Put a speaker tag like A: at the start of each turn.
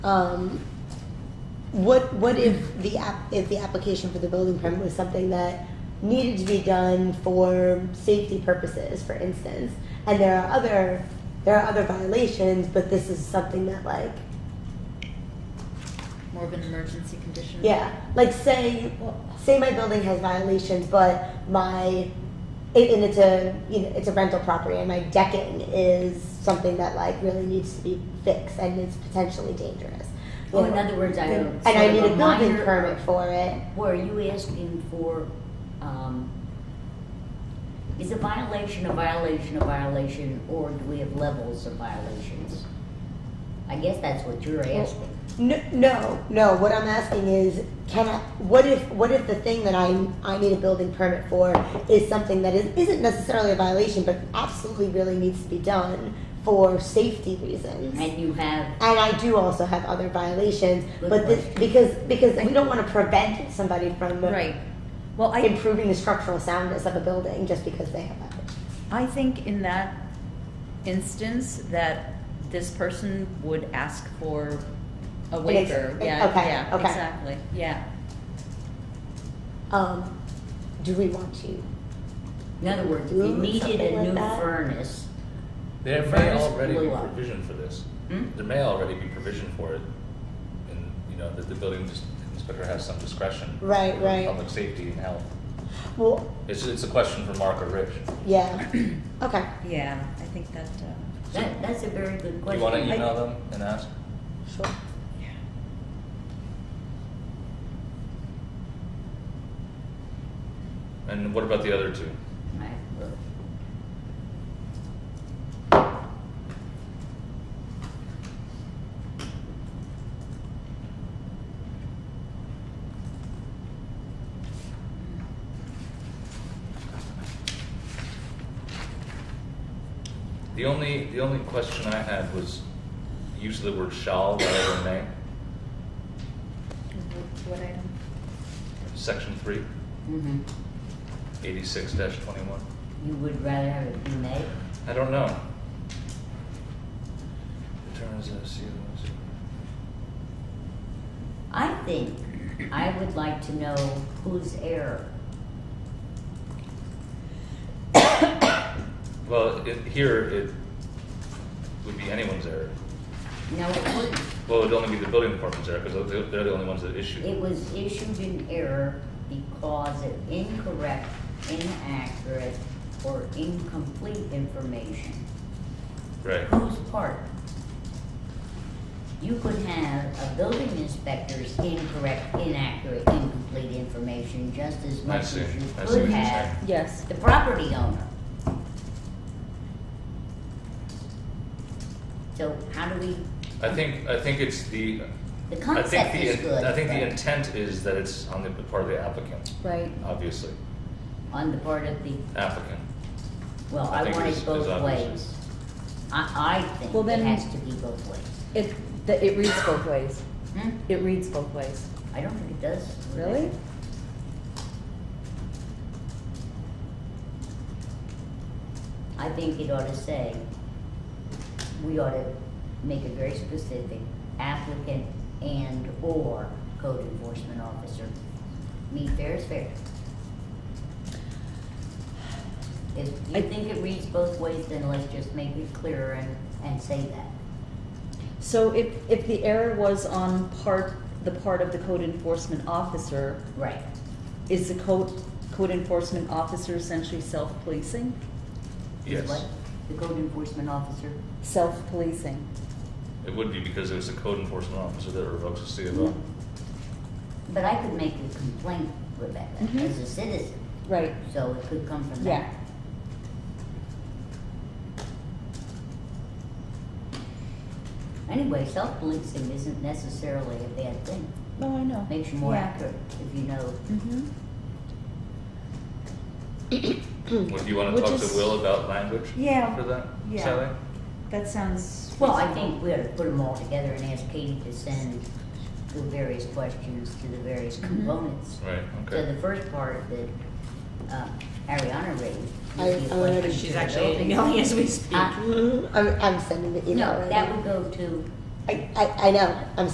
A: Um, What, what if the, app- if the application for the building permit was something that needed to be done for safety purposes, for instance? And there are other, there are other violations, but this is something that like,
B: More of an emergency condition.
A: yeah, like say, say my building has violations, but my, it- and it's a, you know, it's a rental property and my decking is something that like really needs to be fixed and is potentially dangerous.
C: Well, in other words, I would
A: And I need a
C: sort of a
A: building
C: minor-
A: permit for it.
C: Were you asking for, um, is a violation a violation a violation, or do we have levels of violations? I guess that's what you're asking.
A: No, no, no. What I'm asking is, can I? What if? What if the thing that I I need a building permit for is something that is, isn't necessarily a violation, but absolutely really needs to be done for safety reasons.
C: And you have,
A: And I do also have other violations,
C: Good
A: but this,
C: question.
A: because because we don't want to prevent somebody from
B: Right. Well, I,
A: improving the structural soundness of a building just because they have violations.
B: I think in that instance that this person would ask for a waiver.
A: ex-
B: Yeah,
A: okay,
B: yeah,
A: okay.
B: exactly, yeah.
A: Um, do we want to?
C: in other words, if you
A: Room,
C: needed
A: something
C: a
A: like
C: new
A: that?
C: furnace,
D: There may
C: Furnace
D: already be
C: blew up.
D: provision for this.
B: Hmm?
D: There may already be provision for it, and, you know, that the building dis- inspector has some discretion.
A: Right,
D: for
A: right.
D: Public safety and health.
A: Well,
D: It's, it's a question for Mark or Rich.
A: yeah. Okay.
B: Yeah, I think that, uh,
C: that, that's a very good
D: Do you
C: question.
D: wanna email them and ask?
A: Sure.
D: And what about the other two?
C: Right.
D: The only, the only question I had was use of the word shall rather than may,
B: what item?
D: section three,
C: Mhm.
D: eighty-six dash twenty-one.
C: You would rather have it be made?
D: I don't know. Return as a CO.
C: I think I would like to know whose error.
D: Well, it, here it would be anyone's error.
C: No, it wouldn't.
D: Well, it would only be the building department's error because they're, they're the only ones that issue.
C: It was issued in error because of incorrect, inaccurate, or incomplete information.
D: Right.
C: Whose part? You could have a building inspector's incorrect, inaccurate, incomplete information just as
D: I
C: much as
D: see.
C: you
D: I see what
C: could
D: you're
C: have
D: saying.
B: Yes,
C: the property owner. So how do we,
D: I think, I think it's the,
C: the
D: I think
C: concept is
D: the,
C: good.
D: I think the
C: but-
D: intent is that it's on the part of the applicant,
B: right.
D: obviously,
C: On the part of the
D: applicant.
C: Well,
D: I
C: I
D: think
C: want
D: is-
C: it
D: is
C: both
D: obvious.
C: ways. I, I think
B: Well,
C: it
B: then-
C: has to be both ways.
B: It, the, it reads both ways.
C: Hmm?
B: It reads both ways.
C: I don't think it does.
B: Really?
C: I think it ought to say, we ought to make it very specific, applicant and/or code enforcement officer. Me fair is fair. If you
B: I-
C: think it reads both ways, then let's just make it clearer and, and say that.
B: So if, if the error was on part, the part of the code enforcement officer,
C: Right.
B: is the code, code enforcement officer essentially self-policing?
C: Is
D: Yes,
C: what? The code enforcement officer?
B: Self-policing.
D: it would be because it was the code enforcement officer that revokes the CFO.
C: But I could make a complaint, Rebecca,
B: Mhm.
C: as a citizen,
B: Right.
C: so it could come from
B: Yeah.
C: that. Anyway, self-policing isn't necessarily a bad thing.
B: No, Oh, I know.
C: Makes you more
B: Yeah.
C: accurate if you know.
B: Mm-hmm.
D: Would you wanna
B: Which
D: talk
B: is-
D: to Will about language
B: Yeah,
D: for that,
B: yeah.
D: Sally?
B: That sounds.
C: Well, I think we ought to put them all together and ask Katie to send the various questions to the various
B: Mhm.
C: components.
D: Right,
C: So
D: okay.
C: the first part that uh, Ariana raised.
A: I-
C: would be a
A: I already-
C: question
E: She's
C: to the
E: actually
C: building.
E: emailing as we speak.
C: Uh,
A: Mhm. I'm, I'm sending the email.
C: No,
A: right
C: that
A: now.
C: would go to
A: I, I, I know. I'm